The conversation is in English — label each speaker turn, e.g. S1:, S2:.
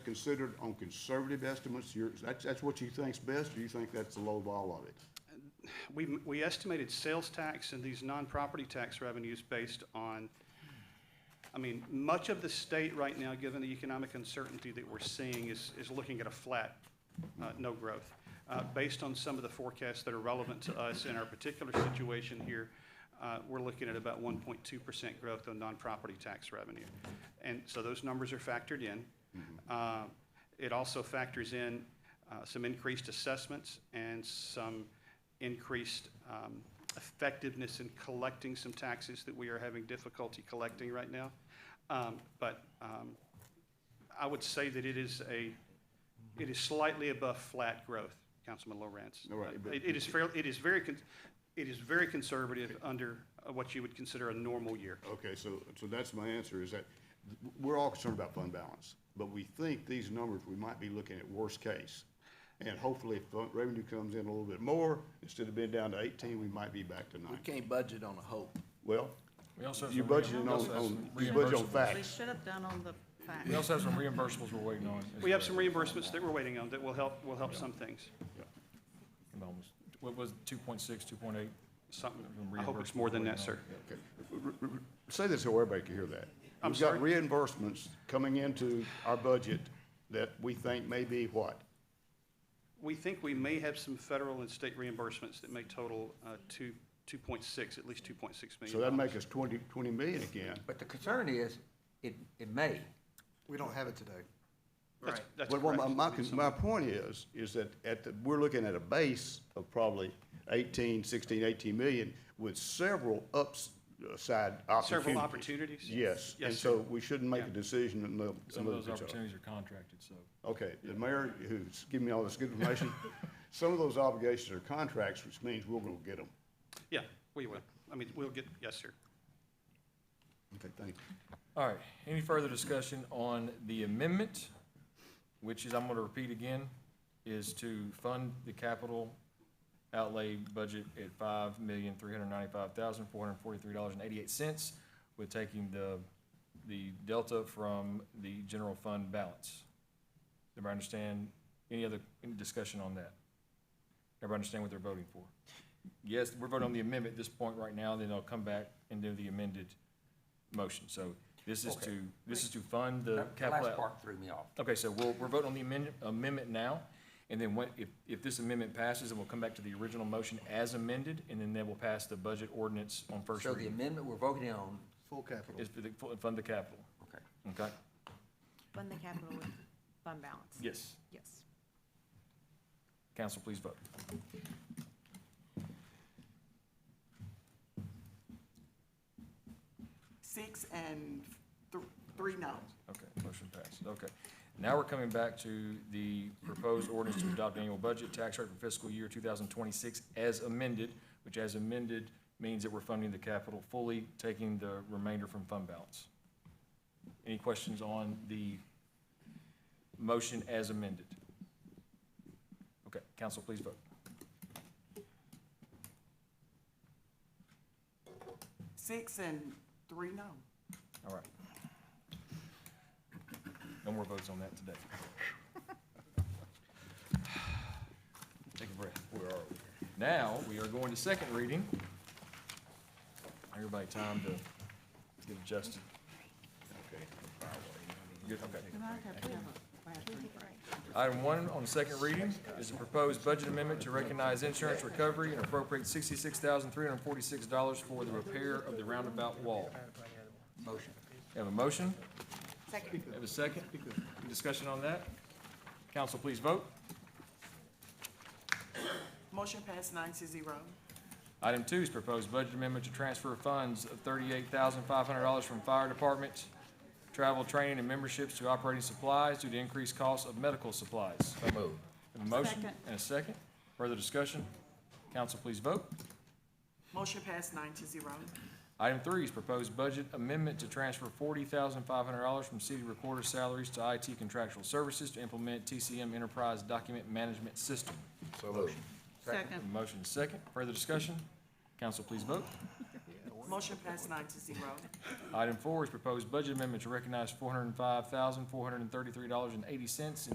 S1: considered on conservative estimates, you're, that's, that's what you think's best, or you think that's the low ball of it?
S2: We, we estimated sales tax and these non-property tax revenues based on, I mean, much of the state right now, given the economic uncertainty that we're seeing, is, is looking at a flat, uh, no growth. Uh, based on some of the forecasts that are relevant to us in our particular situation here, uh, we're looking at about one point two percent growth on non-property tax revenue. And so those numbers are factored in. Uh, It also factors in uh, some increased assessments and some increased um, effectiveness in collecting some taxes that we are having difficulty collecting right now. Um, But um, I would say that it is a, it is slightly above flat growth, Councilman Lowrance.
S1: All right, but-
S2: It it is fairly, it is very, con- it is very conservative under uh, what you would consider a normal year.
S1: Okay, so, so that's my answer, is that we're all concerned about fund balance, but we think these numbers, we might be looking at worst case. And hopefully, if fund- revenue comes in a little bit more, instead of being down to eighteen, we might be back to
S3: We
S1: nine.
S3: can't budget on a hope.
S1: Well,
S4: We also have
S1: you
S4: some
S1: budgeted
S4: reimb-
S1: on,
S4: we also have
S1: on,
S4: some
S1: you budget on
S4: reimbursables.
S5: We
S1: facts.
S5: should have done on the fact.
S4: We also have some reimbursables we're waiting on. as
S2: We have
S4: well.
S2: some reimbursements that we're waiting on that will help, will help some things,
S4: Almost. What was it, 2.6, 2.8?
S2: something.
S4: Some
S2: I hope it's
S4: reimbursements
S2: more than
S4: we're
S2: that,
S4: waiting
S2: sir.
S4: on.
S1: Okay. R- r- r- Say this so everybody can hear that.
S2: I'm sorry?
S1: We've got reimbursements coming into our budget that we think may be what?
S2: We think we may have some federal and state reimbursements that may total uh, two, 2.6, at least 2.6 million.
S1: So that'd make us twenty, twenty million again.
S6: But the concern is, it, it may.
S3: We don't have it today.
S2: That's- That's
S1: But what my,
S2: correct.
S1: my, con- my point is, is that at the, we're looking at a base of probably 18, 16, 18 million with several ups- upside opportunities.
S2: Several opportunities?
S1: Yes, and
S2: Yes,
S1: so
S2: sir.
S1: we shouldn't make a
S2: Yeah.
S1: decision until.
S4: Some of those opportunities are contracted, so.
S1: Okay, the mayor who's giving me all this good information, some of those obligations are contracts, which means we're gonna get them.
S2: Yeah, we will. I mean, we'll get, yes, sir.
S1: Okay, thank you.
S4: All right, any further discussion on the amendment, which is, I'm gonna repeat again, is to fund the capital outlay budget at five million, three hundred ninety-five thousand, four hundred forty-three dollars and eighty-eight cents, with taking the, the delta from the general fund balance. Everybody understand, any other, any discussion on that? Everybody understand what they're voting for? Yes, we're voting on the amendment at this point right now, then they'll come back and do the amended motion. So this is to, this is to fund the
S6: That
S4: capital.
S6: last
S4: out-
S6: part threw me off.
S4: Okay, so we'll, we're voting on the amendment, amendment now, and then when, if, if this amendment passes, then we'll come back to the original motion as amended, and then they will pass the budget ordinance on first
S6: So the
S4: reading.
S6: amendment we're voting on,
S3: Full capital.
S4: Is for the, fu- fund the capital,
S6: okay.
S4: okay?
S5: Fund the capital with fund balance.
S4: Yes.
S5: Yes.
S4: Council, please vote.
S7: Six and th- three no.
S4: Okay, motion passes, okay. Now we're coming back to the proposed ordinance to adopt annual budget tax rate for fiscal year two thousand twenty-six as amended, which as amended means that we're funding the capital fully, taking the remainder from fund balance. Any questions on the motion as amended? Okay, council, please vote.
S7: Six and three no.
S4: All right. No more votes on that today. Take a breath. Where are we? Now, we are going to second reading. Everybody time to get adjusted. Good, okay. Item one on second reading is a proposed budget amendment to recognize insurance recovery and appropriate sixty-six thousand, three hundred and forty-six dollars for the repair of the roundabout wall.
S6: Motion.
S4: Have a motion?
S7: Second.
S4: Have a second? Any Discussion on that? Council, please vote.
S7: Motion passed nine to zero.
S4: Item two is proposed budget amendment to transfer funds of thirty-eight thousand five hundred dollars from fire department, travel, training, and memberships to operating supplies due to increased costs of medical supplies.
S6: So moved.
S4: Have a motion
S5: Second.
S4: and a second. Further discussion? Council, please vote.
S7: Motion passed nine to zero.
S4: Item three is proposed budget amendment to transfer forty thousand five hundred dollars from city recorder salaries to IT contractual services to implement TCM Enterprise Document Management System.
S6: So moved.
S5: Second.
S4: Motion is second. Further discussion? Council, please vote.
S7: Motion passed nine to zero.
S4: Item four is proposed budget amendment to recognize four hundred and five thousand, four hundred and thirty-three dollars and eighty cents in